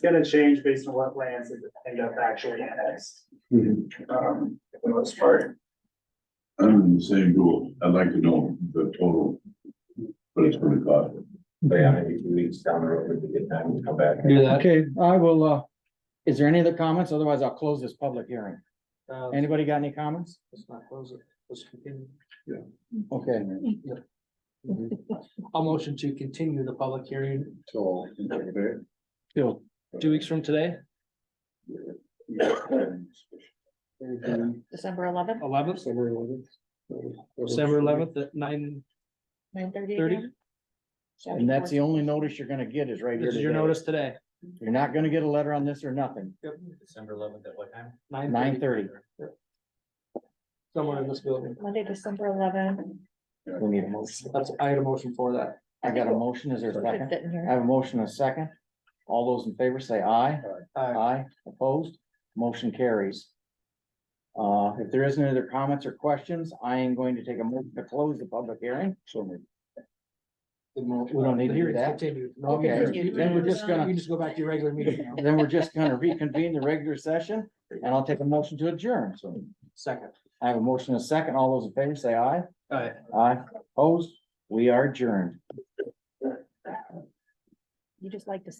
It's gonna change based on what lands end up actually annexed, I'm um, for the most part. in the same rule. I'd like to know the total. But it's gonna cost. But yeah, maybe two weeks down the road, it'd be a good time to come back. Do that. Okay, I will, uh, is there any other comments? Otherwise, I'll close this public hearing. Uh, Anybody got any comments? Let's not close it. Let's continue. Okay, I'll motion to continue the public hearing So. Bill, two weeks from today, December eleventh, eleventh, December eleventh at nine nine thirty. thirty. and that's the only notice you're gonna get is right here This is your today. notice today. You're not gonna get a letter on this or nothing. December eleventh at what time? Nine thirty. Somewhere in this building. Monday, December eleventh. We need a motion. That's, I had a motion for that. I got a motion. Is there a second? I have a motion and a second. All those in favor say aye. Uh, Aye, opposed, motion carries. Uh, if there isn't any other comments or questions, I am going to take a moment to close the public hearing. the mo- We don't need to the do hearing's that. continued. No, Okay, you just- you- then we're just You gonna, just go back to your regular meeting now. then we're just gonna reconvene the regular session and I'll take a motion to adjourn. So Second. I have a motion and a second. All those in favor say aye. All right. Aye, opposed, we are adjourned. You just like to say.